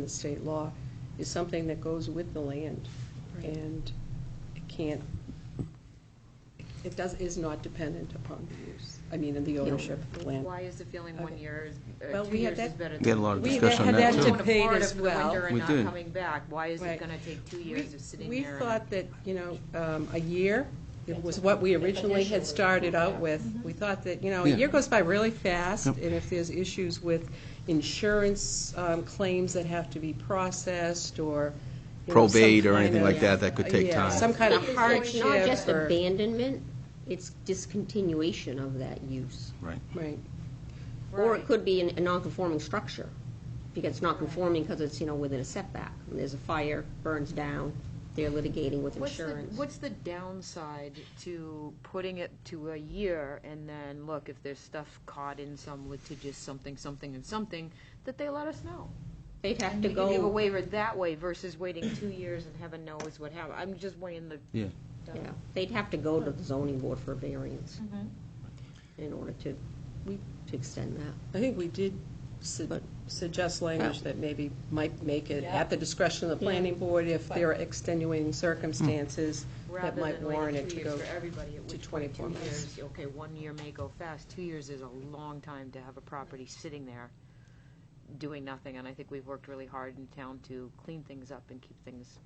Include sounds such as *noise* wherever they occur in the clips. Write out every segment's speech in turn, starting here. in the state law, is something that goes with the land. Right. And it can't, it does, is not dependent upon the use, I mean, and the ownership of the land. Why is the feeling one Okay. year is, Well, uh, two we had years is that- better than? We had a lot of three years? discussion on If that, you're too. going to We had Florida that for the debate as winter and We not did. coming back, why is it Right. going to take two We- years of sitting We there? and- thought that, you know, um, a year, it was what we originally had started out with. Mm-hmm. We thought that, you know, a Yeah. year goes by really fast, Yep. and if there's issues with insurance um, claims that have to be processed, or, you know, some Probate or kind anything of- like that, that could take Yeah, time. some kind of Because It's hardship not just or- abandonment, it's discontinuation of that use. Right. Right. Or Right. it could be an- a non-conforming structure, because it's not conforming because it's, you know, within a setback. And There's a fire, burns down, they're litigating with What's the- insurance. What's the downside to putting it to a year and then, look, if there's stuff caught in some litigious something, something, and something, that they let us know? They'd have to We can give a go, waiver that way versus waiting two years and heaven knows what happened. I'm just weighing the. Yeah. yeah, they'd have to go to the zoning board for a variance Mm-hmm. in order to, to extend that. I think we did su- suggest language that maybe might make it at the discretion of the planning board if there are extenuating circumstances that Rather might than warrant waiting it two to years go. for everybody, at to which point 24 two months. years, okay, one year may go fast, two years is a long time to have a property sitting there doing nothing, and I think we've worked really hard in town to clean things up and keep things,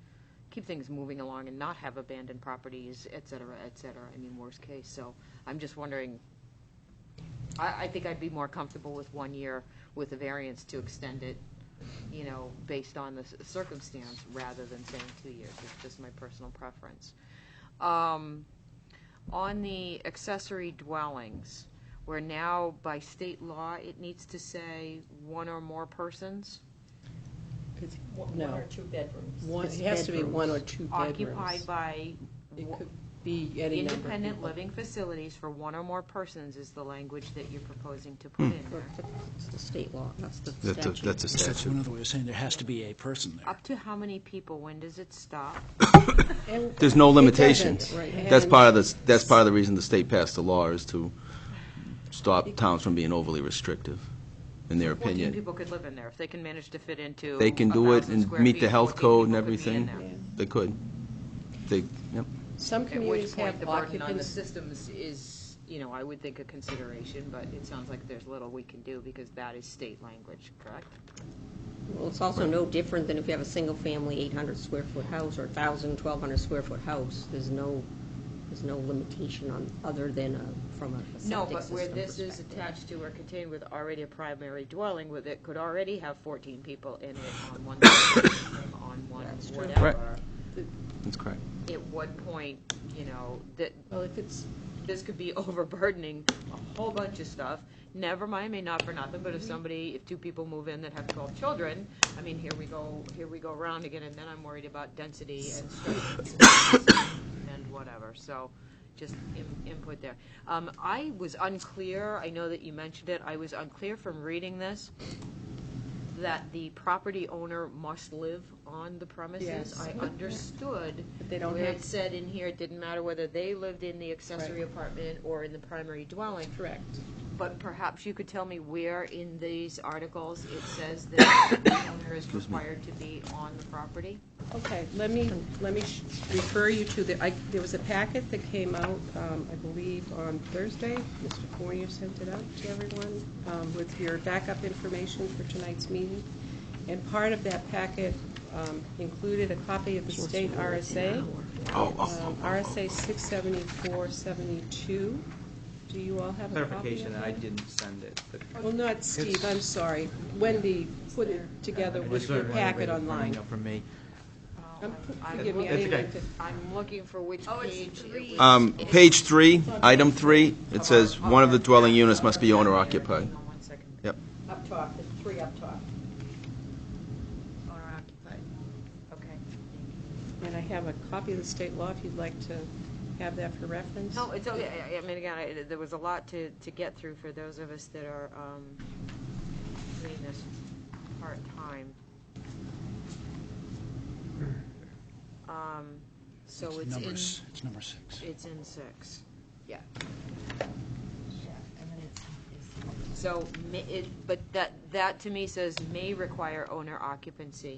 keep things moving along and not have abandoned properties, et cetera, et cetera, I mean, worst case, so I'm just wondering, I, I think I'd be more comfortable with one year with a variance to extend it, you know, based on the c- circumstance, rather than saying two years. It's just my personal preference. Um, On the accessory dwellings, where now by state law, it needs to say one or more persons It's- One No. one or two bedrooms. One, It's it has to be bedrooms. one or two occupied bedrooms. by It w- could be any number of independent people. living facilities for one or more persons is the language that you're proposing to Hmm. put in there. It's the state law, that's the That's a, statute. that's a So that's statute. another way of saying there has to be a person there. Up to how many people? When does it stop? And There's no it doesn't, limitations. right, That's and- part of the, that's part of the reason the state passed the law is to stop towns from being overly restrictive, in their Fourteen opinion. people could live in there if they can manage to fit into. They can do it 1,000 and square meet feet, the health 14 code and people could be in everything. there. They could. They, yep. Some At which communities point, have the burden on the occupants. systems is, you know, I would think a consideration, but it sounds like there's little we can do because that is state language, correct? Well, it's also no different than if you have a single-family 800-square-foot house or 1,000, 1,200-square-foot house. There's no, there's no limitation on, other than uh, from a No, septic but where system this is perspective. attached to or contained with already a primary dwelling with it could already have fourteen people in it on one, *coughs* on one, That's true. Right. whatever. That's correct. At what point, you know, that, Well, if it's, this could be *laughs* overburdening a whole bunch of stuff. Never mind, may not for nothing, but if Mm-hmm. somebody, if two people move in that have twelve children, I mean, here we go, here we go around again, and then I'm worried about density and stress *coughs* and whatever, so just in- input there. Um, I was unclear, I know that you mentioned it, I was unclear from reading this, that the property owner must live on the premises. Yes. I understood But they don't where have it said in here, it didn't matter whether they lived in the accessory apartment or in the primary dwelling, correct. but perhaps you could tell me where in these articles it says that *coughs* the owner is required to be on the property? Okay, let me, let me sh- refer you to the, I, there was a packet that came out, um, I believe, on Thursday. Mr. Fournier sent it out to everyone, um, with your backup information for tonight's meeting. And part of that packet, um, included a copy of the state RSA. Oh, oh, um, RSA six seventy-four seventy-two. Do you all have a copy of Clarification, that? I didn't send it. but- Well, not Steve, I'm sorry. Wendy put it together I with just your wanted to read packet it from, online. you know, From me. Um, I'm Forgive me, I That's didn't okay. mean to- I'm looking for which page it was. Um, page three, item three, it says one of the dwelling units must be owner occupied. Hang on one second. Yep. Up top, there's three up top. Owner occupied, okay. And I have a copy of the state law if you'd like to have that for reference. No, it's oh, okay. I- I mean, again, I- there was a lot to, to get through for those of us that are um, doing this part-time. Um, So It's it's number in, s- It's number six. it's in six. Yeah. Yeah, and then it's. So, ma- it- but that, that to me says may require owner occupancy.